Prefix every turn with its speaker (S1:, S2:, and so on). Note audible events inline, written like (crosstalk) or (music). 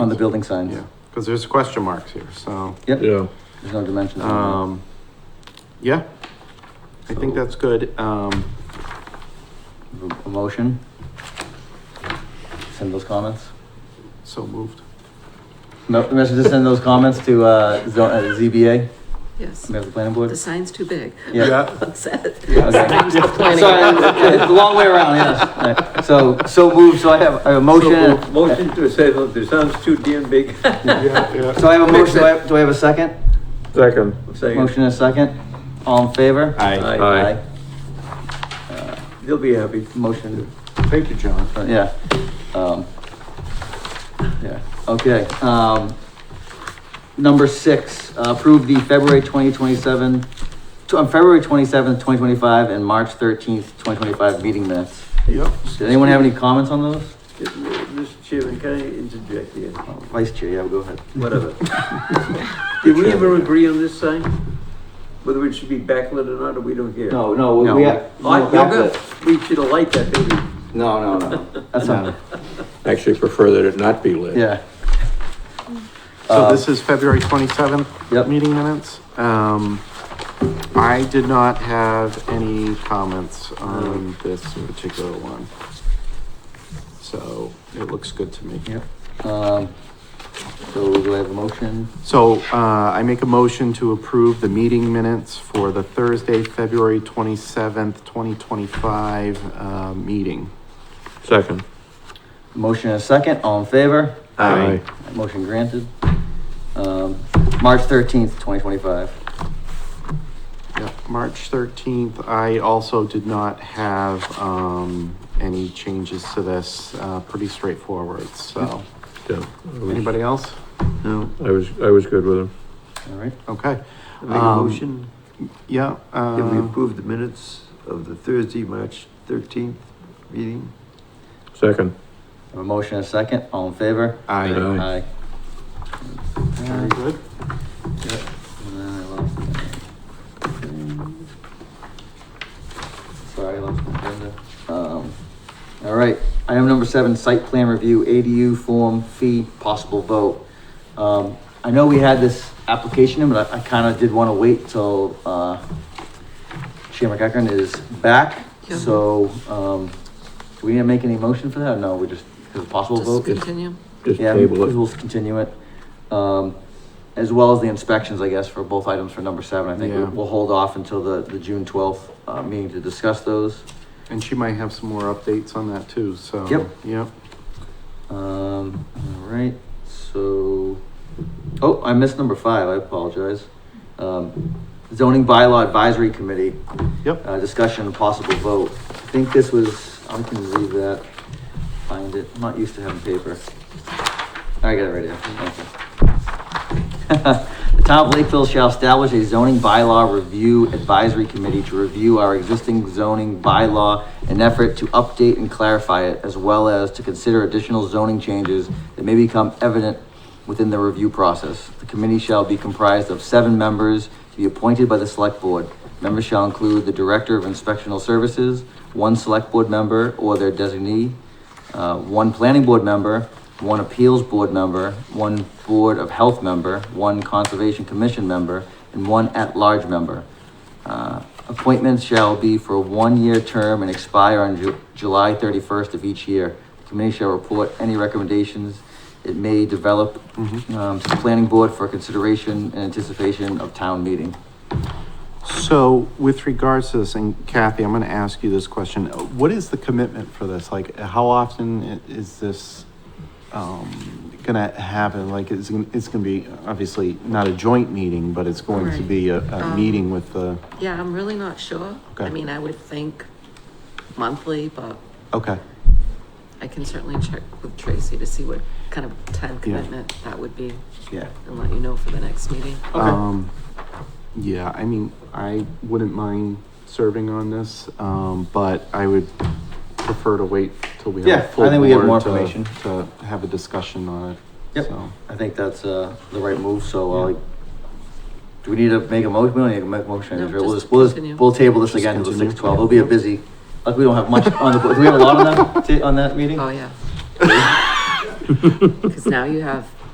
S1: on the building signs.
S2: Yeah, because there's question marks here, so,
S3: Yeah,
S1: There's no dimensions. on
S2: um, yeah. I think that's good. Um,
S1: them. A motion? Send those comments?
S2: so moved.
S1: No, the message to send those comments to, uh, zo- uh, ZBA,
S4: Yes,
S1: we have the planning
S4: the
S1: board?
S4: sign's too big. (laughs)
S1: Yeah.
S4: That's it.
S1: Okay. Sorry, it's a long way around, yes. Alright, So, so moved, so I have a motion,
S5: Motion to say, look, the sound's too damn big. (laughs)
S1: so I have a motion, do I have, do I have a second?
S3: second.
S5: Second.
S1: Motion and a second, all in favor?
S2: Aye.
S3: Aye.
S5: They'll be happy.
S1: Motion,
S2: Thank you, John.
S1: uh, yeah. Um, Yeah, okay, um, number six, uh, approve the February twenty twenty-seven, on February twenty-seventh, twenty twenty-five, and March thirteenth, twenty twenty-five meeting minutes.
S2: Yep.
S1: Did anyone have any comments on those?
S5: Mr. Chairman, can I interject here?
S1: Oh, Vice Chair, yeah, go ahead. (laughs)
S5: Whatever. Did we ever agree on this sign? Whether it should be backlit or not, or we don't care?
S1: No, no,
S2: No.
S1: we, we have.
S5: I feel good. We should have liked that, baby.
S1: No, no, no, that's not,
S3: Actually prefer that it not be lit.
S1: yeah.
S2: So
S1: Uh,
S2: this is February twenty-seventh?
S1: Yep.
S2: Meeting minutes. Um, I did not have any comments on this particular one. So it looks good to me.
S1: Yep. Um, so do I have a motion?
S2: So, uh, I make a motion to approve the meeting minutes for the Thursday, February twenty-seventh, twenty twenty-five, uh, meeting.
S3: Second.
S1: Motion and a second, all in favor?
S2: Aye.
S1: Motion granted. Um, March thirteenth, twenty twenty-five.
S2: Yep, March thirteenth, I also did not have, um, any changes to this, uh, pretty straightforward, so.
S3: Yeah, I was-
S2: Anybody else?
S5: No.
S3: I was, I was good with him.
S1: All right,
S2: Okay,
S5: I Make a
S2: Um,
S5: motion,
S2: yeah,
S5: that we
S2: uh,
S5: approve the minutes of the Thursday, March thirteenth meeting?
S3: Second.
S1: I have a motion and a second, all in favor?
S2: I,
S3: Aye.
S1: Aye.
S2: very good.
S1: And then I lost my thing. Sorry, I lost my agenda. Um, all right, item number seven, site plan review, ADU form fee, possible vote. Um, I know we had this application, in, but I, I kinda did wanna wait till, uh, Chair McEachran is back,
S4: Yeah.
S1: so, um, do we need to make any motion for that? No, we just, is it possible
S4: Just
S1: vote?
S4: continue.
S3: Just
S1: Yeah,
S3: table it.
S1: we'll continue it. Um, as well as the inspections, I guess, for both items for number seven. I think
S2: Yeah.
S1: we'll, we'll hold off until the, the June twelfth, uh, meeting to discuss those.
S2: And she might have some more updates on that too, so.
S1: Yep.
S2: Yep.
S1: Um, all right, so, oh, I missed number five, I apologize. Um, zoning bylaw advisory committee.
S2: Yep.
S1: Uh, discussion and possible vote. I think this was, I'm gonna leave that, find it, I'm not used to having paper. I got it right here, thank you. (laughs) The town of Lakeville shall establish a zoning bylaw review advisory committee to review our existing zoning bylaw in an effort to update and clarify it, as well as to consider additional zoning changes that may become evident within the review process. The committee shall be comprised of seven members to be appointed by the select board. Members shall include the director of inspectional services, one select board member or their designee, uh, one planning board member, one appeals board member, one board of health member, one conservation commission member, and one at-large member. Uh, Appointments shall be for a one-year term and expire on Ju- July thirty-first of each year. The Committee shall report any recommendations it may develop
S2: mm-hmm.
S1: um, to the planning board for consideration and anticipation of town meeting.
S2: So with regards to this, and Kathy, I'm gonna ask you this question. What is the commitment for this? Like, how often i- is this, um, gonna happen? Like, it's, gonna- it's gonna be, obviously, not a joint meeting, but it's going to
S4: Right.
S2: be a, a
S4: Um,
S2: meeting with the,
S4: Yeah, I'm really not sure.
S2: Okay.
S4: I mean, I would think monthly, but
S2: okay.
S4: I can certainly check with Tracy to see what kind of time commitment that would be
S1: Yeah.
S4: and let you know for the next meeting.
S2: Um, yeah, I mean, I wouldn't mind serving on this, um, but I would prefer to wait till we have. a
S1: Yeah, I
S2: full
S1: think we have
S2: board
S1: more
S2: to-
S1: information.
S2: To have a discussion on it.
S1: Yep.
S2: So,
S1: I think that's, uh, the right move, so, uh, do we need to make a motion? We don't need to make a motion,
S4: No,
S1: right? we'll
S4: just
S1: just, we'll
S4: continue.
S1: just, we'll table this
S2: Just
S1: again to the
S2: continue.
S1: six twelve, it'll be a busy,
S4: Uh, (laughs)
S1: like, we don't have much on the, do we have a lot on that, ta- on that meeting?
S4: Oh, yeah. Because Oh, now you have